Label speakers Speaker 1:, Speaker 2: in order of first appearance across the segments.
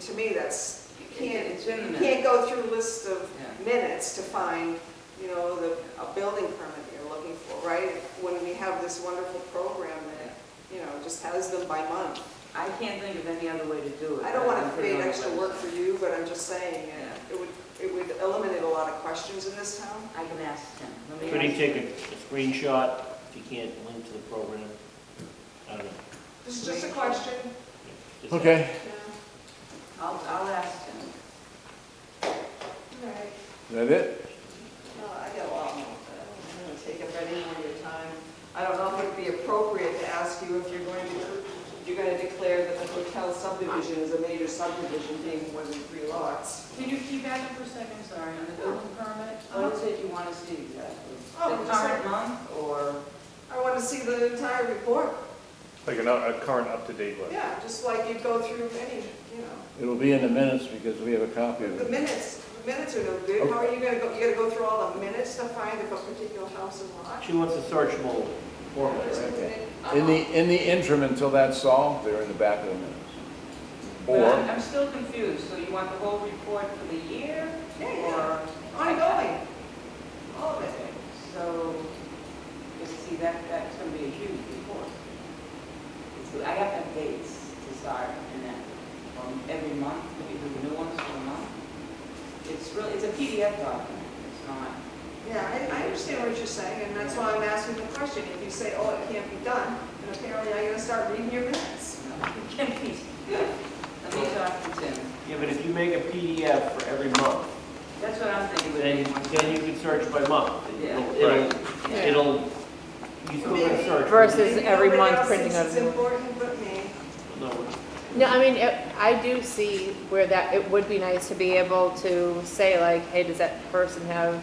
Speaker 1: to me, that's, you can't,
Speaker 2: It's in the
Speaker 1: you
Speaker 2: minutes.
Speaker 1: can't go through a list of
Speaker 2: Yeah.
Speaker 1: minutes to find, you know, the, a building permit you're looking for, right? When we have this wonderful program that, you know, just has them by month.
Speaker 2: I can't think of any other way to do it.
Speaker 1: I don't want to
Speaker 2: than put it
Speaker 1: create
Speaker 2: on the
Speaker 1: extra work for you, but I'm just saying, uh, it would, it would eliminate a lot of questions in this town.
Speaker 2: website. I can ask him. Let me
Speaker 3: Could he
Speaker 2: ask
Speaker 3: take a
Speaker 2: him.
Speaker 3: a screenshot if you can't link to the program? I don't know.
Speaker 1: This is just a question.
Speaker 3: Just-
Speaker 4: Okay,
Speaker 1: yeah.
Speaker 2: I'll, I'll ask him.
Speaker 1: All right.
Speaker 4: is that it?
Speaker 2: No, I got a lot more, but I'm going to take up any more of your time. I don't know if it'd be appropriate to ask you if you're going to, you're going to declare that the hotel subdivision is a major subdivision being more than three lots.
Speaker 5: Can you keep at it for a second, sorry, on the building permit?
Speaker 2: What is it you want to see exactly?
Speaker 1: Oh,
Speaker 2: The current month or?
Speaker 1: I want to see the entire report.
Speaker 6: Like an, a current up-to-date list.
Speaker 1: Yeah, just like you'd go through any, you know.
Speaker 4: It'll be in the minutes because we have a copy of
Speaker 1: The
Speaker 4: it.
Speaker 1: minutes, the minutes are no good. How are you gonna go, you gotta go through all the minutes to find if a particular house is lot?
Speaker 3: She wants a searchable format, right?
Speaker 4: Okay.
Speaker 1: Uh-huh.
Speaker 4: In the, in the interim, until that's solved, they're in the back of the minutes.
Speaker 2: But
Speaker 4: Or,
Speaker 2: I'm still confused, so you want the whole report for the year?
Speaker 1: Yeah, yeah,
Speaker 2: Or
Speaker 1: ongoing. All of it.
Speaker 2: Okay, so, you see, that, that's gonna be a huge report. It's- I have to have dates to start, and then, um, every month, we do new ones for a month. It's really, it's a PDF document, it's not,
Speaker 1: Yeah, I, I understand what you're saying, and that's why I'm asking the question. If you say, oh, it can't be done, then apparently I gotta start reading your minutes.
Speaker 2: you know, it can be. Let me talk to Tim,
Speaker 3: Yeah, but if you make a PDF for every month,
Speaker 2: that's what I'm thinking.
Speaker 3: then, then you can search by month.
Speaker 2: Yeah.
Speaker 3: It'll- It'll,
Speaker 1: Yeah.
Speaker 3: it'll, you still can search.
Speaker 7: Versus- This is
Speaker 1: Maybe
Speaker 7: every
Speaker 1: nobody
Speaker 7: month
Speaker 1: else
Speaker 7: printing
Speaker 1: thinks
Speaker 7: out
Speaker 1: It's
Speaker 7: a new
Speaker 1: important but me.
Speaker 3: No,
Speaker 7: No, I mean, it- I do see where that, it would be nice to be able to say like, hey, does that person have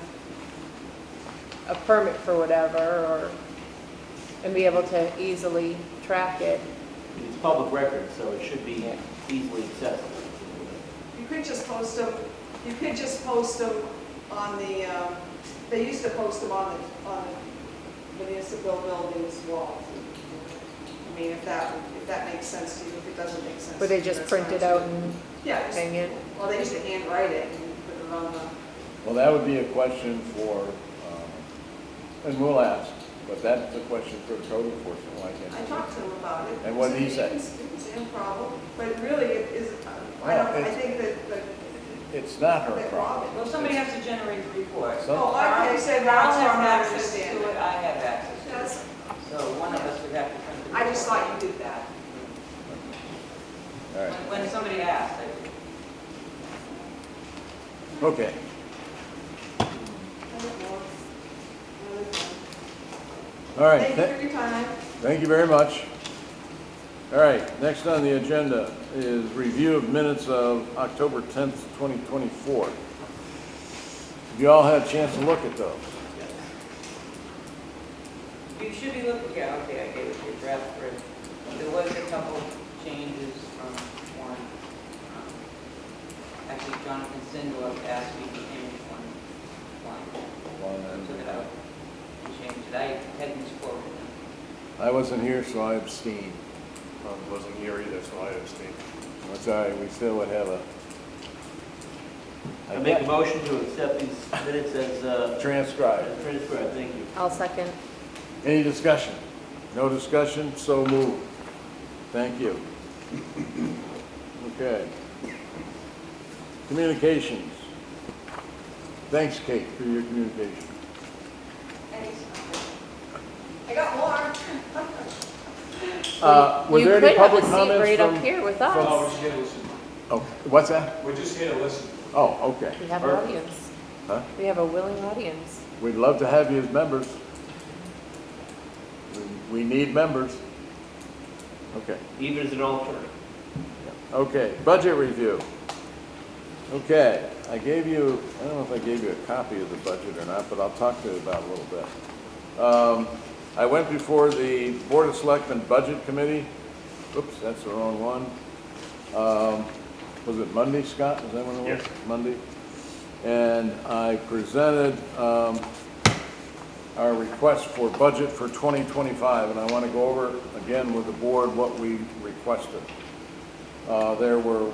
Speaker 7: a permit for whatever, or, and be able to easily track it.
Speaker 3: it's public record, so it should be
Speaker 7: Yeah.
Speaker 3: easily accessible.
Speaker 1: You could just post them, you could just post them on the, um, they used to post them on the, on the municipal building's wall. I mean, if that, if that makes sense to you, if it doesn't make sense.
Speaker 7: Would they
Speaker 1: to you,
Speaker 7: just
Speaker 1: that's
Speaker 7: print it
Speaker 1: fine.
Speaker 7: out and
Speaker 1: Yeah, just-
Speaker 7: hang it?
Speaker 1: well, they used to handwrite it and put it on the, uh,
Speaker 4: well, that would be a question for, um, and we'll ask, but that's a question for code enforcement, why
Speaker 1: I
Speaker 4: can't?
Speaker 1: talked to him about it.
Speaker 4: And what did he say?
Speaker 1: It's it's improbable, but really it is, uh, I don't, I think that, that
Speaker 4: It's not her
Speaker 1: that
Speaker 4: problem.
Speaker 1: Robin.
Speaker 2: Well, somebody has to generate the report.
Speaker 4: Some-
Speaker 1: Oh, I, you said that's
Speaker 2: Ron
Speaker 1: what I
Speaker 2: has access to
Speaker 1: understand.
Speaker 2: it, I have access to it.
Speaker 1: That's,
Speaker 2: So one of us would have to print the
Speaker 1: I just
Speaker 2: report.
Speaker 1: thought you did that.
Speaker 4: All right,
Speaker 2: When- When somebody asks, I-
Speaker 4: okay. All right,
Speaker 1: Thank
Speaker 4: tha-
Speaker 1: you for your time.
Speaker 4: Thank you very much. All right, next on the agenda is review of minutes of October 10th, 2024. Have you all had a chance to look at those?
Speaker 2: you should be looking, yeah, okay, I gave it your draft for it. There was a couple changes from one. um, Actually, Jonathan Sindor asked me to change one line, took it out and changed it. I had misquoted him.
Speaker 4: I wasn't here, so I abstained.
Speaker 6: Um, Wasn't here either, so I abstained.
Speaker 4: That's all right, we still would have a...
Speaker 3: I make a motion to accept these minutes as, uh,
Speaker 4: Transcribed.
Speaker 3: as transcribed, thank you.
Speaker 7: I'll second.
Speaker 4: Any discussion? No discussion, so moved. Thank you. Okay. Communications. Thanks, Kate, for your communication.
Speaker 1: I got more.
Speaker 4: Uh, Were
Speaker 7: You
Speaker 4: there
Speaker 7: could
Speaker 4: any
Speaker 7: have a
Speaker 4: public
Speaker 7: seat
Speaker 4: comments
Speaker 7: Right up
Speaker 4: from?
Speaker 7: here with
Speaker 8: Oh, we're
Speaker 7: us.
Speaker 8: just here to listen.
Speaker 4: Oh, what's that?
Speaker 8: We're just here to listen.
Speaker 4: Oh, okay.
Speaker 7: We have an
Speaker 4: Perfect.
Speaker 7: audience.
Speaker 4: Huh?
Speaker 7: We have a willing audience.
Speaker 4: We'd love to have you as members. We- We need members. Okay,
Speaker 3: Even as an alternate.
Speaker 4: okay, budget review. Okay, I gave you, I don't know if I gave you a copy of the budget or not, but I'll talk to you about it a little bit. Um, I went before the Board of Selectmen Budget Committee. Oops, that's the wrong one. Um, Was it Monday, Scott? Was that when it was?
Speaker 3: Yes.
Speaker 4: Monday? And I presented um, our request for budget for 2025, and I want to go over again with the board what we requested. Uh, There were